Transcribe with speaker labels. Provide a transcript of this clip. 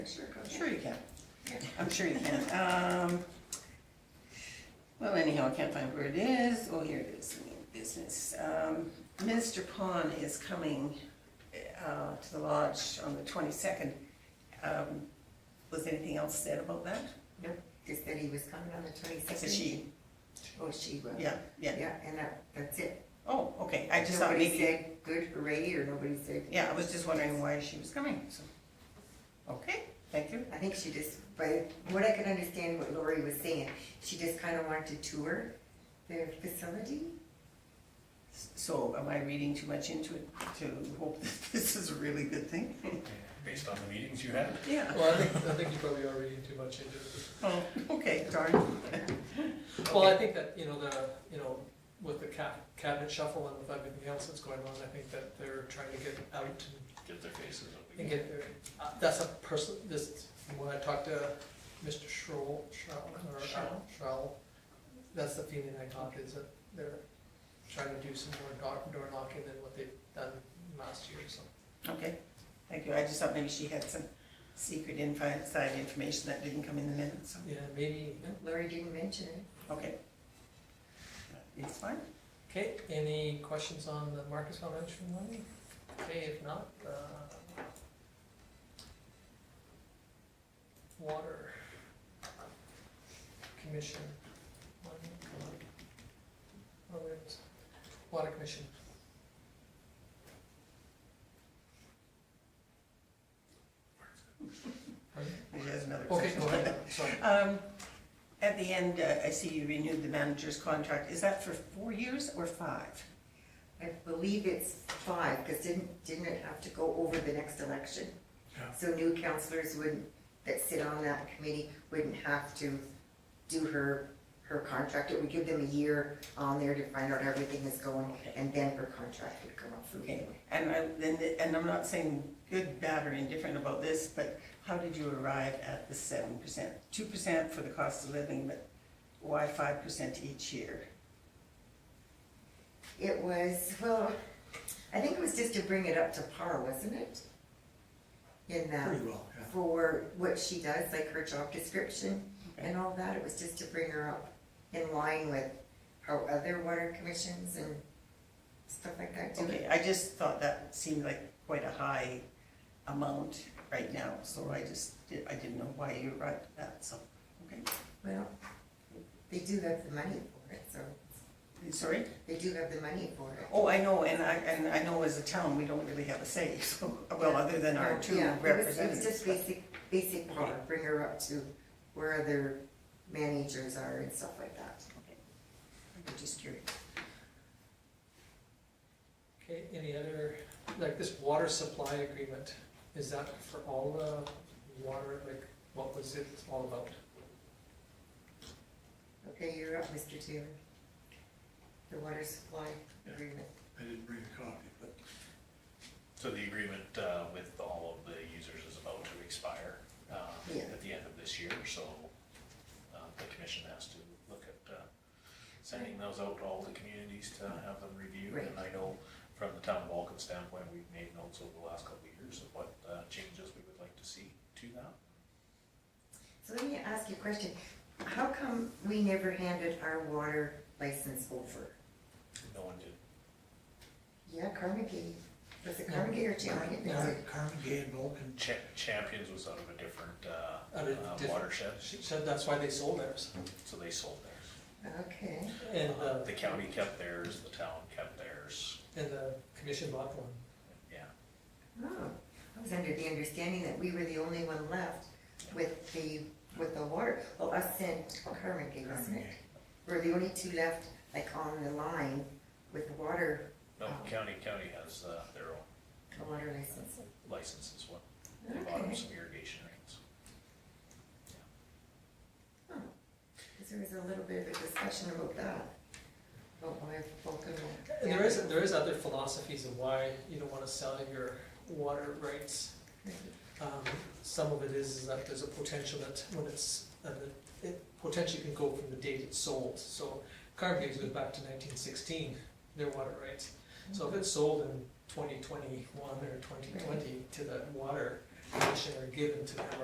Speaker 1: Sure, go ahead.
Speaker 2: Sure you can. I'm sure you can. Um, well, anyhow, I can't find where it is. Oh, here it is, new business. Um, Minister Pond is coming, uh, to the lodge on the twenty-second. Um, was anything else said about that?
Speaker 1: No, just that he was coming on the twenty-second.
Speaker 2: It's a she,
Speaker 1: Oh, she will.
Speaker 2: yeah, yeah.
Speaker 1: Yeah, and that, that's it.
Speaker 2: Oh, okay, I just thought
Speaker 1: Nobody
Speaker 2: maybe,
Speaker 1: said good hooray, or nobody said.
Speaker 2: yeah, I was just wondering why she was coming, so. Okay, thank you.
Speaker 1: I think she just, by what I could understand what Lori was saying, she just kind of wanted to tour the facility.
Speaker 2: So am I reading too much into it to hope that this is a really good thing?
Speaker 3: Based on the meetings you had?
Speaker 2: Yeah.
Speaker 4: Well, I think, I think you probably are reading too much into it.
Speaker 2: Oh, okay, darn.
Speaker 4: Well, I think that, you know, the, you know, with the ca- cabinet shuffle and with everything else that's going on, I think that they're trying to get out and-
Speaker 3: Get their faces up
Speaker 4: and
Speaker 3: again.
Speaker 4: get their, uh, that's a person, this, when I talked to Mr. Schroll, Schroll, or
Speaker 2: Schroll.
Speaker 4: Schroll, that's the feeling I got is that they're trying to do some more door, door knocking than what they've done last year, so.
Speaker 2: Okay, thank you. I just thought maybe she had some secret inside information that didn't come in the minutes, so,
Speaker 4: Yeah, maybe, yeah.
Speaker 1: Lori didn't mention it.
Speaker 2: okay. It's fine.
Speaker 4: Okay, any questions on the Marcus Elementary one? Okay, if not, uh. Water. Commission. Oh, wait, Water Commission. Pardon?
Speaker 2: Maybe There's another
Speaker 4: Okay,
Speaker 2: question.
Speaker 4: go ahead, sorry.
Speaker 2: Um, at the end, uh, I see you renewed the manager's contract. Is that for four years or five?
Speaker 1: I believe it's five, because didn't, didn't it have to go over the next election?
Speaker 3: Yeah.
Speaker 1: So new counselors wouldn't, that sit on that committee wouldn't have to do her, her contract. It would give them a year on there to find out how everything is going, and then her contract would come up for
Speaker 2: Okay,
Speaker 1: renewal.
Speaker 2: and I, and, and I'm not saying good, bad, or indifferent about this, but how did you arrive at the seven percent? Two percent for the cost of living, but why five percent each year?
Speaker 1: It was, well, I think it was just to bring it up to par, wasn't it? In that,
Speaker 3: Pretty well, yeah.
Speaker 1: for what she does, like her job description and all that, it was just to bring her up in line with how other water commissions and stuff like that do.
Speaker 2: Okay, I just thought that seemed like quite a high amount right now, so I just, di- I didn't know why you arrived at that, so, okay.
Speaker 1: Well, they do have the money for it, so,
Speaker 2: Sorry?
Speaker 1: they do have the money for it.
Speaker 2: Oh, I know, and I, and I know as a town, we don't really have a say, so, well, other than our two
Speaker 1: Yeah, it was- It was
Speaker 2: representatives.
Speaker 1: just
Speaker 2: but-
Speaker 1: basic, basic par, bring her up to where other managers are and stuff like that.
Speaker 2: okay. I'm just curious.
Speaker 4: Okay, any other, like this water supply agreement, is that for all the water, like, what was it all about?
Speaker 1: Okay, you're up, Mr. Taylor. The water supply agreement.
Speaker 5: I didn't bring a copy, but
Speaker 3: So the agreement uh, with all of the users is about to expire um,
Speaker 1: Yeah.
Speaker 3: at the end of this year, so uh, the commission has to look at uh, sending those out to all the communities to have them reviewed. And I know from the town of Vulcan standpoint, we've made notes over the last couple of years of what uh, changes we would like to see to that.
Speaker 1: So let me ask you a question. How come we never handed our water license over?
Speaker 3: No one did.
Speaker 1: Yeah, Carnegie, was it Carnegie or Chandler?
Speaker 4: Yeah.
Speaker 5: Carmen Gay Uh, and Vulcan,
Speaker 3: Cha- Champions was out of a different uh,
Speaker 4: Out of
Speaker 3: uh,
Speaker 4: different-
Speaker 3: watershed,
Speaker 4: She said that's why they sold theirs,
Speaker 3: so they sold theirs.
Speaker 1: Okay,
Speaker 4: and, uh,
Speaker 3: The county kept theirs, the town kept theirs,
Speaker 4: and the commission bought one.
Speaker 3: yeah.
Speaker 1: oh, I was under the understanding that we were the only one left with the, with the water, well, us and Carnegie, wasn't it?
Speaker 5: Carnegie.
Speaker 1: We're the only two left, like, on the line with the water,
Speaker 3: No,
Speaker 1: Oh.
Speaker 3: county, county has uh, their own
Speaker 1: the water license.
Speaker 3: license as well. They bought them
Speaker 1: Okay.
Speaker 3: some irrigation rates.
Speaker 1: Oh, 'cause there was a little bit of a discussion about that, about why Vulcan. won't-
Speaker 4: And there is, there is other philosophies of why you don't wanna sell your water rights. Um, some of it is is that there's a potential that when it's, uh, that it potentially can go from the date it's sold. So Carnegie goes back to nineteen sixteen, their water rights. So if it's sold in twenty twenty-one or twenty twenty to the water commission or given to them